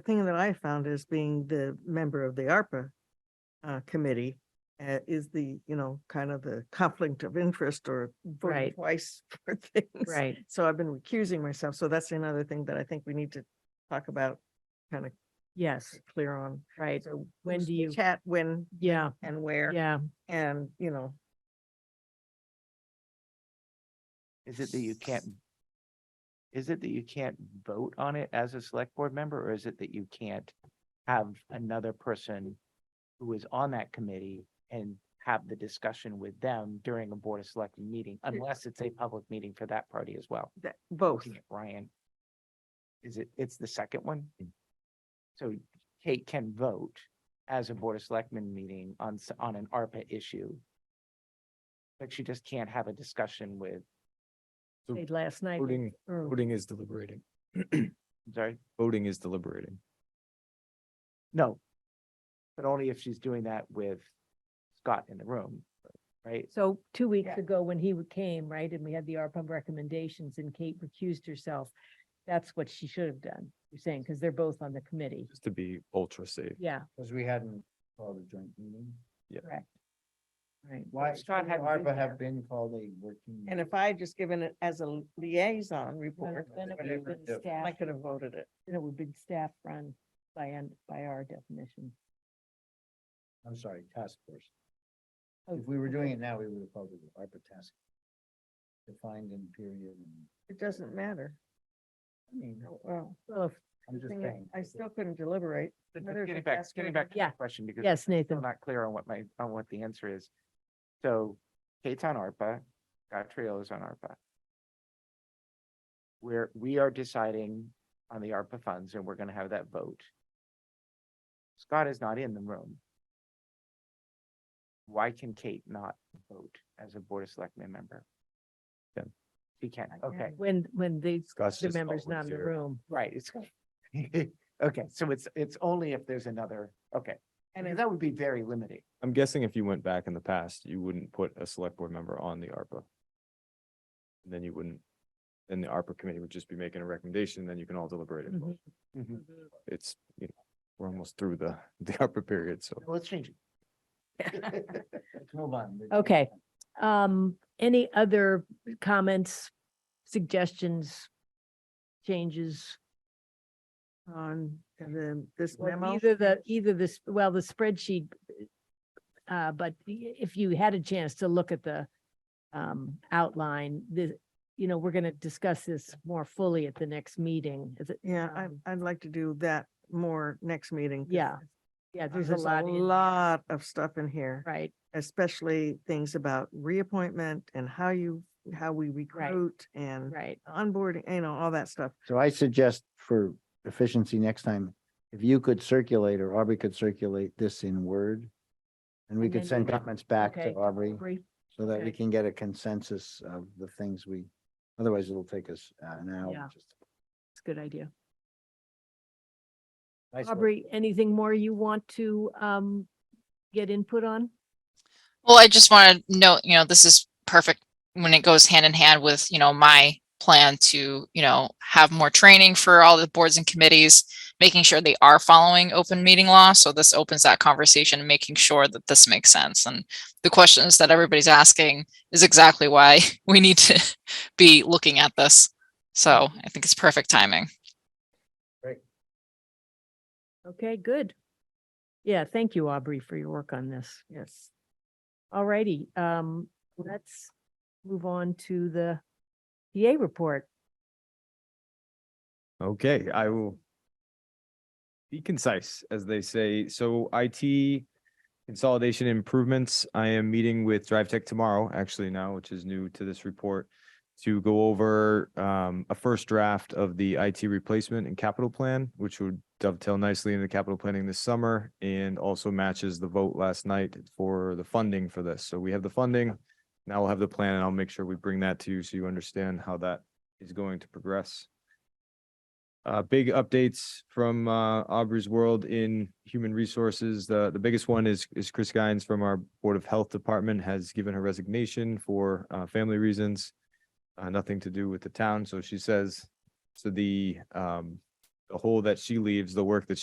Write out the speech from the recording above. The thing that I found as being the member of the ARPA uh, committee uh, is the, you know, kind of the conflict of interest or voting Right. twice for things. Right. So I've been recusing myself. So that's another thing that I think we need to talk about, kind of Yes, clear on. right. So When who's do you- Chat, when Yeah, and where yeah. and, you know, Is it that you can't? Is it that you can't vote on it as a select board member, or is it that you can't have another person who is on that committee and have the discussion with them during a board of selecting meeting, unless it's a public meeting for that party as well? that, both. Looking at Ryan. Is it, it's the second one? So Kate can vote as a board of selectmen meeting on, s- on an ARPA issue. But she just can't have a discussion with, So Played last night. Voting, or- voting is deliberating. sorry, Voting is deliberating. no. But only if she's doing that with Scott in the room, right? So two weeks Yeah. ago, when he w- came, right, and we had the ARPA recommendations and Kate recused herself, that's what she should have done, you're saying, because they're both on the committee. Just to be ultra safe. Yeah, Because we hadn't called a joint meeting. right. Why, Scott shouldn't hadn't been ARPA there. have been called a working. And if I had just given it as a liaison Then report, then it would have whatever, been yeah. staff, I could have voted it. then it would have been staff run by, un- by our definition. I'm sorry, task force. Oh, If we were okay. doing it now, we would have called it an ARPA task. Defined in period and, It doesn't matter. I mean, Oh, Well, Well, if- I'm just thing is, saying. I still couldn't deliberate. But- but whether it's Getting a back, task force or getting back to the Yeah. question because. yes, still Nathan, not clear on what my, on what the answer is. So Kate's on ARPA, Scott Trio is on ARPA. We're, we are deciding on the ARPA funds and we're gonna have that vote. Scott is not in the room. Why can Kate not vote as a Board of Selectmen member? Yeah. She can't, I okay, can't. when, when the, Scott's the just member's not always in the here. room. right, it's, okay, so it's, it's only if there's another, okay. And And if- that would be very limiting. I'm guessing if you went back in the past, you wouldn't put a select board member on the ARPA. And Then you wouldn't, then the ARPA committee would just be making a recommendation, then you can all deliberate. and vote. Mm-hmm. Mhm. It's, you know, we're almost through the, the ARPA period, so. Let's change it. Let's move on. We're- Okay. Um, any other comments, suggestions, changes? On the, this Well, memo. Either the, either this, well, the spreadsheet, uh, but i- if you had a chance to look at the um, outline, the, you know, we're going to discuss this more fully at the next meeting. Is it, Yeah, um, I, I'd like to do that more next meeting. 'cause Yeah, yeah, uh, there's a lot, in- Lot of stuff in here, right, especially things about reappointment and how you, how we recruit and right. onboarding, you know, all that stuff. So I suggest for efficiency next time, if you could circulate or Aubrey could circulate this in Word. And we And could then- send comments back to Okay. Aubrey Agree. so that we okay. can get a consensus of the things we, otherwise it'll take us uh, an Yeah. hour. just to- It's a good idea. Nice work. Aubrey, anything more you want to um, get input on? Well, I just want to note, you know, this is perfect when it goes hand in hand with, you know, my plan to, you know, have more training for all the boards and committees, making sure they are following open meeting law. So this opens that conversation and making sure that this makes sense. And the questions that everybody's asking is exactly why we need to be looking at this. So I think it's perfect timing. Okay, good. Yeah, thank you, Aubrey, for your work on this. Yes. All righty, um, let's move on to the PA report. Okay, I will be concise, as they say. So IT consolidation improvements, I am meeting with Drive Tech tomorrow, actually now, which is new to this report, to go over um, a first draft of the IT replacement and capital plan, which would dovetail nicely into capital planning this summer and also matches the vote last night for the funding for this. So we have the funding. Now we'll have the plan and I'll make sure we bring that to you so you understand how that is going to progress. Uh, big updates from uh Aubrey's world in human resources. The the biggest one is is Chris Guines from our Board of Health Department has given her resignation for uh family reasons. Uh, nothing to do with the town, so she says. So the um the hole that she leaves, the work that